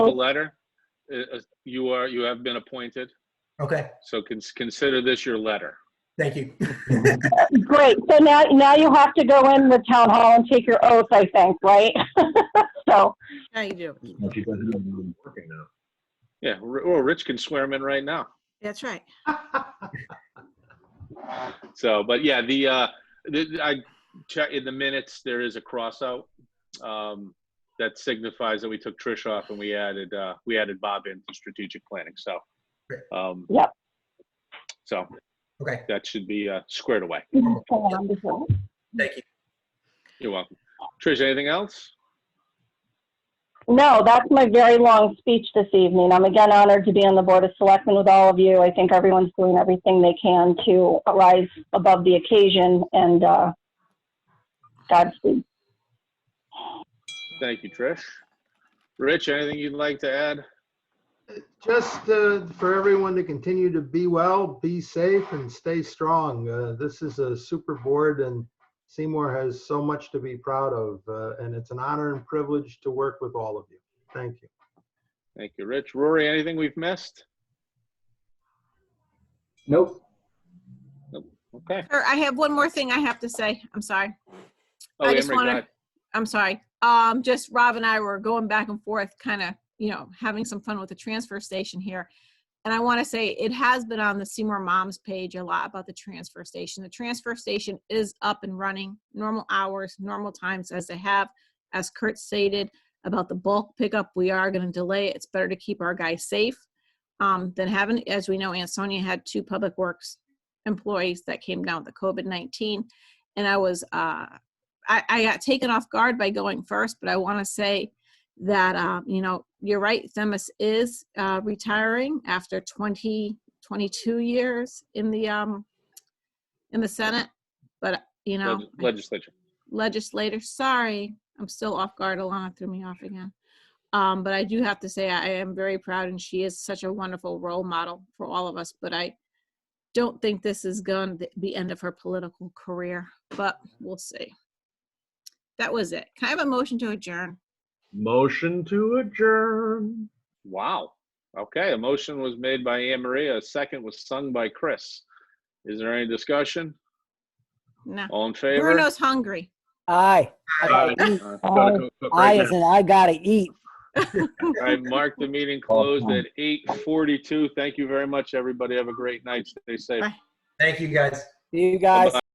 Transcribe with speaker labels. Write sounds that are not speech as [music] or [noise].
Speaker 1: the letter. Uh, uh, You are, you have been appointed,
Speaker 2: Okay,
Speaker 1: so cons- consider this your letter.
Speaker 2: thank you. [laughs]
Speaker 3: Great, so now, now you have to go in the town hall and take your oath, I think, right? [laughs] So,
Speaker 4: Yeah, you do.
Speaker 5: No, she doesn't even know I'm working now.
Speaker 1: Yeah, R- well, Rich can swear him in right now.
Speaker 4: That's right.
Speaker 1: So, but yeah, the, uh, the, I check in the minutes, there is a cross out. Um, that signifies that we took Trish off and we added, uh, we added Bob in for strategic planning, so.
Speaker 2: Great.
Speaker 1: Um,
Speaker 3: Yep.
Speaker 1: So
Speaker 2: Okay,
Speaker 1: that should be, uh, squared away.
Speaker 3: wonderful.
Speaker 2: thank you.
Speaker 1: You're welcome. Trish, anything else?
Speaker 3: no, that's my very long speech this evening. I'm again honored to be on the Board of Selectmen with all of you. I think everyone's doing everything they can to rise above the occasion and, uh, Godspeed.
Speaker 1: Thank you, Trish. Rich, anything you'd like to add?
Speaker 6: Just uh, for everyone to continue to be well, be safe, and stay strong. Uh, This is a super board, and Seymour has so much to be proud of, uh, and it's an honor and privilege to work with all of you. Thank you.
Speaker 1: Thank you, Rich. Rory, anything we've missed?
Speaker 5: Nope.
Speaker 1: Okay.
Speaker 4: Or I have one more thing I have to say. I'm sorry.
Speaker 1: Oh,
Speaker 4: I just
Speaker 1: Emery, go
Speaker 4: wanna-
Speaker 1: ahead.
Speaker 4: I'm sorry. Um, just Rob and I were going back and forth, kind of, you know, having some fun with the transfer station here. And I want to say it has been on the Seymour Moms page a lot about the transfer station. The transfer station is up and running, normal hours, normal times as they have. As Kurt stated about the bulk pickup, we are going to delay. it. It's better to keep our guys safe um, than having, as we know, Ansonia had two public works employees that came down with the COVID 19. And I was, uh, I, I got taken off guard by going first, but I want to say that, um, you know, you're right. Themis is uh, retiring after 20, 22 years in the, um, in the Senate. But, you know,
Speaker 1: Leg- Legislature.
Speaker 4: legislator, sorry, I'm still off guard. Alana threw me off again. Um, but I do have to say, I am very proud and she is such a wonderful role model for all of us. But I don't think this is going to be end of her political career, but we'll see. That was it. Can I have a motion to adjourn?
Speaker 5: Motion to adjourn.
Speaker 1: Wow. Okay, a motion was made by Anne Maria, a second was sung by Chris. Is there any discussion?
Speaker 4: No.
Speaker 1: All in favor?
Speaker 4: Bruno's hungry.
Speaker 7: Aye.
Speaker 1: Aye. Uh, gotta go cook
Speaker 7: Aye
Speaker 1: right
Speaker 7: as
Speaker 1: now.
Speaker 7: in I gotta eat.
Speaker 1: All right, mark the meeting
Speaker 7: [laughs]
Speaker 1: closed at 8:42. Thank you very much, everybody. Have a great night. Stay safe.
Speaker 4: Bye.
Speaker 2: Thank you, guys.
Speaker 7: You guys.